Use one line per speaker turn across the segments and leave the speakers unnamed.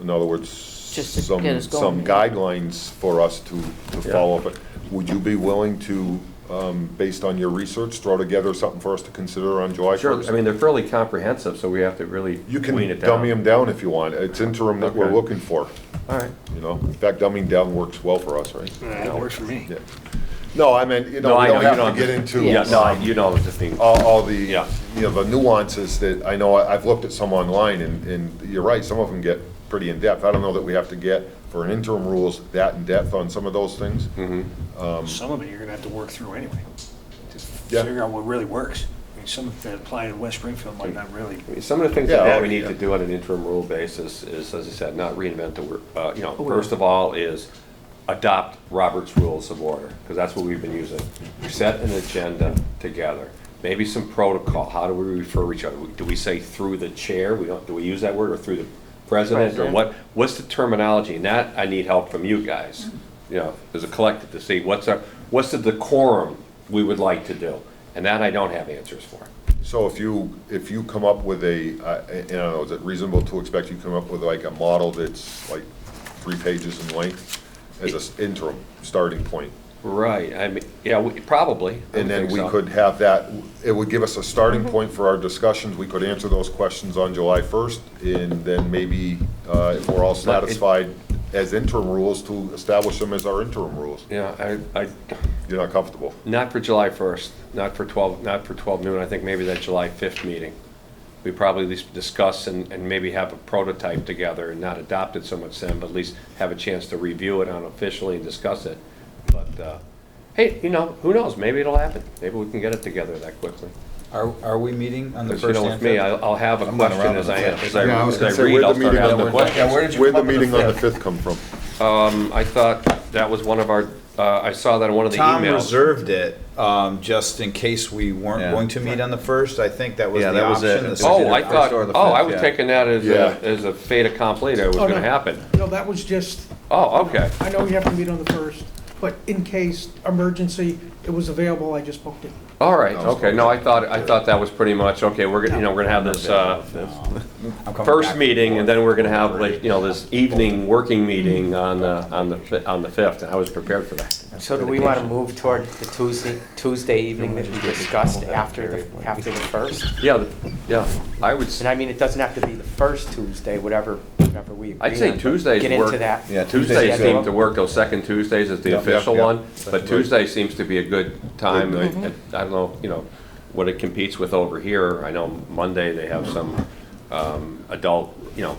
In other words,
Just to get
some,
us going.
some guidelines for us to, to
Yeah.
follow. But would you be willing to, um, based on your research, throw together something for us to consider on July 1st?
Sure, I mean, they're fairly comprehensive, so we have to really
You
wean
can
it down.
dummy them down if you want. It's interim that we're
Okay.
looking for,
All right.
you know? In fact, dumbing down works well for us, right?
That works for me.
Yeah. No, I mean, you know,
No,
we
I
don't
know, you
have to get into.
Yeah, no, I- you know, just being,
all, all the, you
Yeah.
know, the nuances that, I know, I- I've looked at some online, and, and you're right, some of them get pretty in-depth. I don't know that we have to get, for an interim rules, that in-depth on some of those things.
Um,
Some of it you're gonna have to work through anyway. Just
Yeah.
figure out what really works. I mean, some of that apply in West Springfield might not really.
I mean, some of the things
Yeah,
that
oh,
we need
yeah.
to do on an interim rule basis is, as I said, not reinvent the, wor- uh, you
Oh,
know, first of all is adopt Robert's Rules of Order, because that's what we've been using. Set an agenda together, maybe some protocol, how do we refer each other? Do we say through the chair, we don't, do we use that word, or through the president, or
President.
what, what's the terminology? And that, I need help from you guys, you know, as a collective to see what's our, what's the decorum we would like to do? And that I don't have answers for.
So if you, if you come up with a, uh, and I don't know, is it reasonable to expect you come up with like a model that's like three pages in length as an interim starting point?
Right, I mean, yeah, we- probably. I
And then
think
we
so.
could have that, it would give us a
Mm-hmm.
starting point for our discussions, we could answer those questions on July 1st, and then maybe, uh, if we're all satisfied as interim rules, to establish them as our interim rules.
Yeah, I, I,
You're not comfortable?
not for July 1st, not for 12, not for 12 noon, I think maybe that July 5th meeting. We probably at least discuss and, and maybe have a prototype together and not adopt it so much then, but at least have a chance to review it unofficially and discuss it. But, uh, hey, you know, who knows, maybe it'll happen, maybe we can get it together that quickly.
Are, are we meeting on the
Because, you
first
know,
and
with me,
fifth?
I'll, I'll have a
I'm not
question
around
as
on
I,
the fifth.
as I
Yeah, I was
as
gonna
I
say,
read,
where'd
I'll
the
start
meeting on
having
the-
questions.
Yeah, where did you
Where'd the
come up with
meeting on the
fifth?
5th come from?
Um, I thought that was one of our, uh, I saw that in one of the emails.
Tom reserved it, um, just in case we weren't
Yeah.
going to meet on the first, I think that was the option.
Yeah, that was it. It
the
was
second
Oh,
or
I
first.
thought,
or the
oh, I
fifth,
was
yeah.
taking that as
Yeah.
a, as a fait accompli, that it was
Oh, no.
gonna happen.
No, that was just,
Oh, okay,
I know we have to meet on the first, but in case emergency, it was available, I just booked it.
all right,
No, it's
okay, no, I thought, I thought that was pretty much, okay, we're, gonna you know, we're gonna have this, uh,
I'm coming back
first
and
meeting, and
forth.
then we're gonna have, like, you know, this evening working meeting on, uh, on the, fi- on the fifth, and I was prepared for that.
So do we want to move toward the Tuesday, Tuesday evening that we discussed after the, after the first?
Yeah, the- yeah, I would, s-
And I mean, it doesn't have to be the first Tuesday, whatever, whatever we agree on.
I'd say
but
Tuesdays
Get into
work.
that.
Yeah,
Tuesdays
Tuesdays
seem
schedule.
to work, those second Tuesdays is the
Yeah, yeah,
official
yeah.
one, but
Right.
Tuesday seems to be a good time.
Good
I I don't know, you know, what it competes with over here. I know Monday they have some um, adult, you know,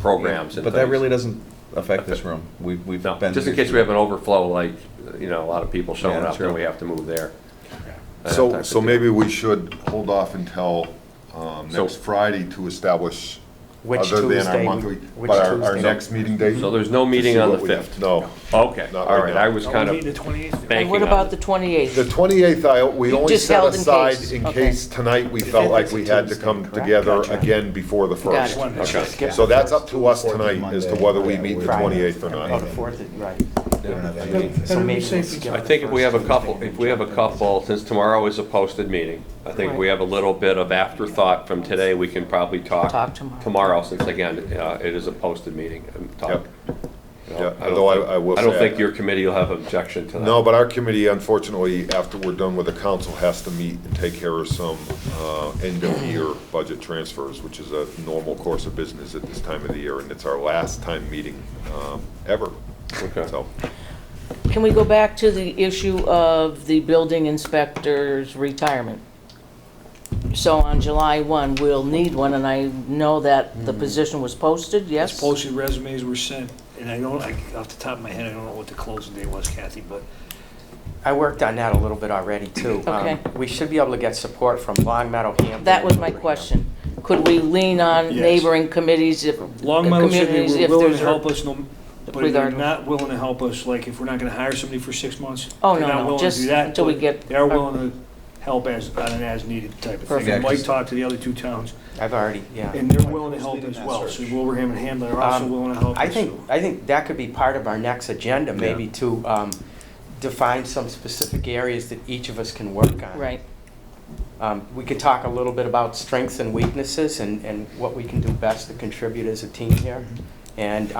programs and
But that
things.
really doesn't affect this room. We've, we've
No,
been.
just in case we have an overflow, like, you know, a lot of people showing
Yeah,
up, then
true.
we have to move there. That type
So,
of
so
thing.
maybe we should hold off until, um,
So-
next Friday to establish,
Which
other than our
Tuesday we-
monthly,
which
but our, our
Tuesday?
next meeting date.
So there's no
to
meeting
see
on
what
the
we-
5th?
No.
Okay,
Not
all
right
right,
now.
I was
Oh,
kind
we meet the
of
twenty-eighth.
banking
And what
on
about
it.
the
The
28th?
twenty-eighth, I, we
You
only
just
set
held in
aside
case.
in
Okay.
case tonight we felt
fifth
like
is
we had to
Tuesday,
come
correct?
together
Gotcha.
again before the
Got
first.
it.
Okay.
So that's up to us
Fourth is
tonight as to
Monday.
whether we
Yeah,
meet the
Friday.
twenty-eighth or
Oh,
not.
the fourth, is- right.
We don't have
Better
any-
So
be
maybe we'll
safe
skip
than
I
sorry.
think if we have a
First
couple,
Tuesday.
if we have a couple, since tomorrow is a posted meeting, I think we have a little bit of afterthought from today, we can probably talk.
Talk tomorrow.
since again, uh, it is a posted meeting, and talk.
Yep.
You know,
Yeah,
don't
although I-
think-
I will
I don't
say-
think your committee will have objection to that.
No, but our committee unfortunately, after we're done with the council, has to meet and take care of some, uh, end of year budget transfers, which is a normal course of business at this time of the year, and it's our last time meeting, um, ever.
Okay.
So,
Can we go back to the issue of the building inspector's retirement? So on July 1, we'll need one, and I know that the position was posted, yes?
As Hmm. posted resumes were sent, and I don't, I, off the top of my head, I don't know what the closing day was, Kathy, but
I worked on that a little bit already, too. Um,
Okay.
We should be able to get support from Long Meadow, Hampton.
That was my
Wilbraham.
question. Could we lean on
Yes.
neighboring committees if,
Long Meadow said
communities,
they
if
were willing
there's
to
a-
help us, no- but if they're
regardless.
not willing to help us, like, if we're not gonna hire somebody for six months,
Oh,
they're
no,
not
no,
willing to
just
do that,
until we
but
get
They're
our-
willing to help as, on an as-needed type of thing.
Perfect.
And Mike
Yeah, 'cause-
talked to the other two towns,
I've already, yeah.
and they're willing to help
leading
as
that
well, so
search?
Wilbraham and Hamlin are also
Um,
willing to help us.
I think, I think that could be part of our next agenda, maybe to um, define some specific areas that each of us can work on.
right,
Um, We could talk a little bit about strengths and weaknesses and, and what we can do best to contribute as a team here. And